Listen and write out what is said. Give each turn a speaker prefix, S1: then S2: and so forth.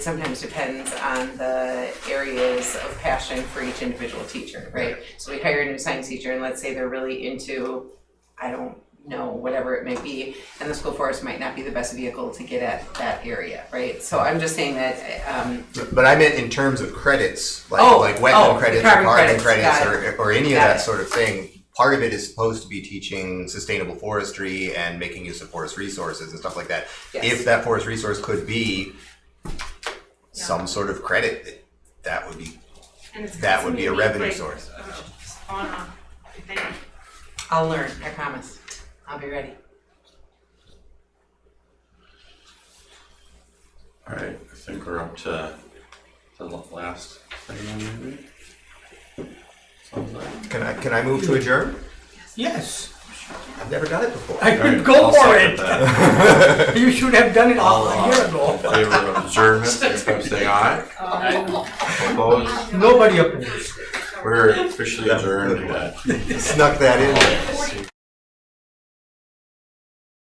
S1: sometimes depends on the areas of passion for each individual teacher, right? So we hire a new science teacher and let's say they're really into, I don't know, whatever it may be, and the school forest might not be the best vehicle to get at that area, right? So I'm just saying that, um,
S2: But I meant in terms of credits, like
S1: Oh,
S2: like wetland
S1: oh,
S2: credits or
S1: carbon
S2: carbon
S1: credits,
S2: credits,
S1: got
S2: or, or any of
S1: Got
S2: that
S1: it.
S2: sort of thing. Part of it is supposed to be teaching sustainable forestry and making use of forest resources and stuff like that.
S1: Yes.
S2: If that forest resource could be some sort of credit, that would be
S3: And it's
S2: that would be a revenue
S3: constantly like,
S2: source.
S3: On a thing.
S1: I'll learn, I promise. I'll be ready.
S4: All right, I think we're up to the l- last thing on the agenda. Sounds like.
S2: Can I can I move to adjourn?
S5: Yes.
S2: I've never done it before.
S5: I
S4: All right,
S5: could go
S4: I'll
S5: for
S4: second
S5: it.
S4: that.
S5: You should have done it all
S4: All
S5: a year
S4: uh, in
S5: ago.
S4: favor of adjournment, signify by saying aye. Opposed?
S5: Nobody opposed.
S4: We're officially adjourned at
S2: Snuck that in.